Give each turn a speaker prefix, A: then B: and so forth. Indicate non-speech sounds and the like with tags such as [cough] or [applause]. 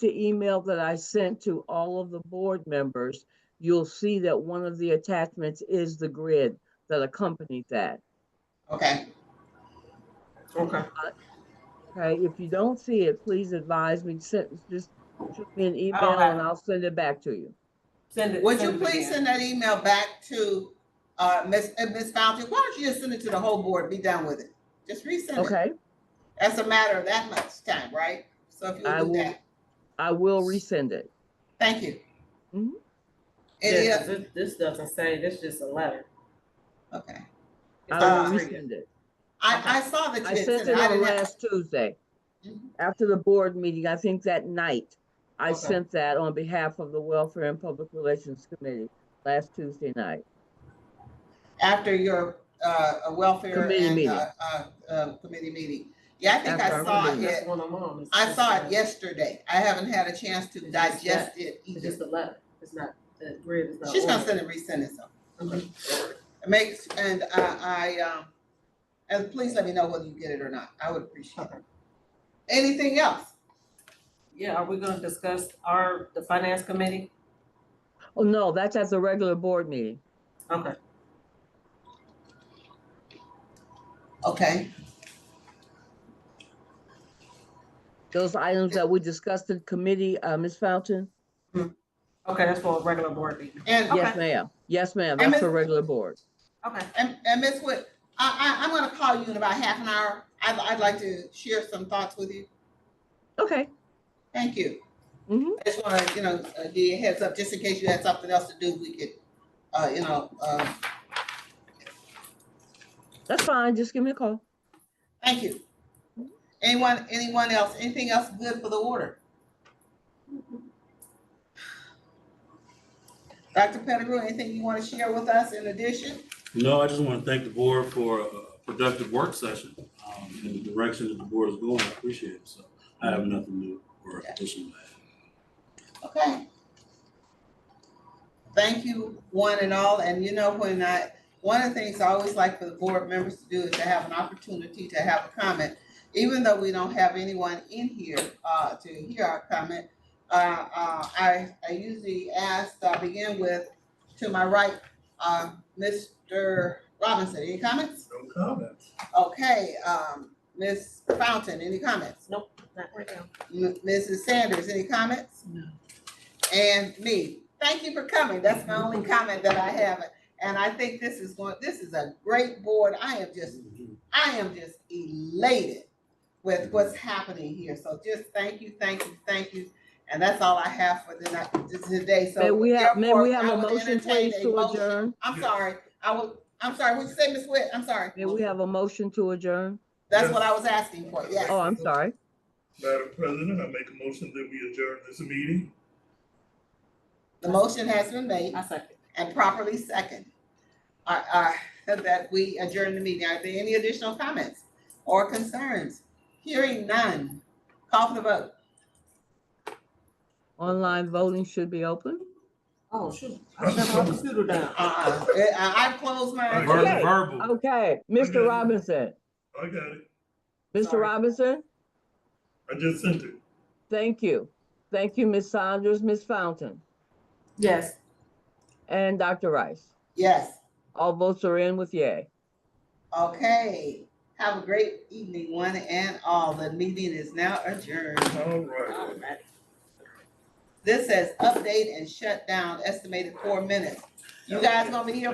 A: the email that I sent to all of the board members, you'll see that one of the attachments is the grid that accompanied that.
B: Okay,
C: Okay,
A: Okay, if you don't see it, please advise me, send, just shoot me an email
C: have
A: and
C: it.
A: I'll send it back to you.
C: send it.
B: would you
C: send it
B: please
C: again.
B: send that email back to, uh, Ms., uh, Ms. Fountain? Why don't you just send it to the whole board, be done with it? Just resend it.
A: Okay,
B: That's a matter of that much time, right? So if
A: I
B: you do
A: will.
B: that,
A: I will resend it.
B: thank you.
A: Mhm.
B: Any
C: Yeah, 'cause
B: other,
C: this, this doesn't say, this is just a letter.
B: okay. Uh,
C: It's
A: I will
C: not free.
A: resend it.
B: I, I saw that
A: I
B: you had sent
A: sent
B: it.
A: it
B: I
A: on
B: didn't have,
A: last Tuesday.
B: Mhm.
A: After the board meeting, I think that night, I
C: Okay.
A: sent that on behalf of the Welfare and Public Relations Committee last Tuesday night.
B: after your, uh, uh, welfare
A: Committee
B: and,
A: meeting.
B: uh, uh, uh, committee meeting. Yeah, I think
A: After
B: I
A: our
B: saw
A: committee.
B: it.
C: That's one I'm on. It's
B: I
C: just
B: saw
C: a-
B: it yesterday. I haven't had a chance to
C: It's just
B: digest it
C: It's
B: either.
C: just a letter. It's not, the grid is not.
B: She's gonna
C: ordered.
B: send it, resend it, so.
C: Okay.
B: It Makes, and I, I, um, and please let me know whether you get it or not. I would appreciate it. Anything else?
C: Yeah, are we gonna discuss our, the finance committee?
A: Oh, no, that's at the regular board meeting.
C: Okay,
B: Okay,
A: Those items that we discussed in committee, uh, Ms. Fountain?
C: okay, that's for a regular board meeting.
B: and,
C: Okay.
A: Yes, ma'am. Yes, ma'am.
B: And
A: That's
B: Ms.
A: for regular board.
C: Okay,
B: and, and Ms. Wood, I, I, I'm gonna call you in about half an hour. I'd, I'd like to share some thoughts with you.
A: Okay.
B: Thank you.
A: Mhm.
B: I just wanna, you know, uh, give you a heads up, just in case you had something else to do, we could, uh, you know, uh,
A: That's fine. Just give me a call.
B: Thank you. Anyone, anyone else, anything else good for the order? Dr. Pettigrew, anything you want to share with us in addition?
D: No, I just want to thank the board for a productive work session um, and the direction that the board is going. I appreciate it. So I have nothing new or additional. to add.
B: Okay. Thank you, one and all, and you know, when I, one of the things I always like for the board members to do is to have an opportunity to have a comment. Even though we don't have anyone in here, uh, to hear our comment, uh, uh, I, I usually ask, I begin with, to my right, uh, Mr. Robinson, any comments?
E: No comments.
B: Okay, um, Ms. Fountain, any comments?
C: not right now.
B: M- Mrs. Sanders, any comments? No. And me, thank you for coming. That's my only comment that I have. And I think this is going, this is a great board. I am just, I am just elated with what's happening here. So just thank you, thank you, thank you. And that's all I have for the night, this- today. So
A: May we have, may we
B: therefore,
A: have a
B: I would
A: motion
B: entertain
A: please
B: a
A: to
B: motion.
A: adjourn?
B: I'm sorry. I will, I'm sorry. What'd you say, Ms. Witt? I'm sorry.
A: May we have a motion to adjourn?
B: That's what I was asking for. Yes.
A: Oh, I'm sorry.
E: Madam President, I make a motion that we adjourn this meeting.
B: The motion has been made.
C: I second.
B: and properly second. Uh, uh, [laughs] that we adjourn the meeting. Are there any additional comments or concerns? Hearing none. Call for the vote.
A: Online voting should be open.
C: Oh, shoot, I shut my computer down.
B: Uh, uh, I've closed mine.
E: Okay.
D: Verbal, verbal.
A: Okay, Mr.
E: Okay.
A: Robinson,
E: I got it.
A: Mr.
C: Sorry.
A: Robinson,
E: I just sent it.
A: thank you. Thank you, Ms. Saunders, Ms. Fountain,
C: Yes.
A: and Dr. Rice.
B: Yes,
A: All votes are in with yay.
B: okay. Have a great evening, one and all. The meeting is now adjourned.
E: All right.
C: All right.
B: This says update and shut down, estimated four minutes. You guys gonna be here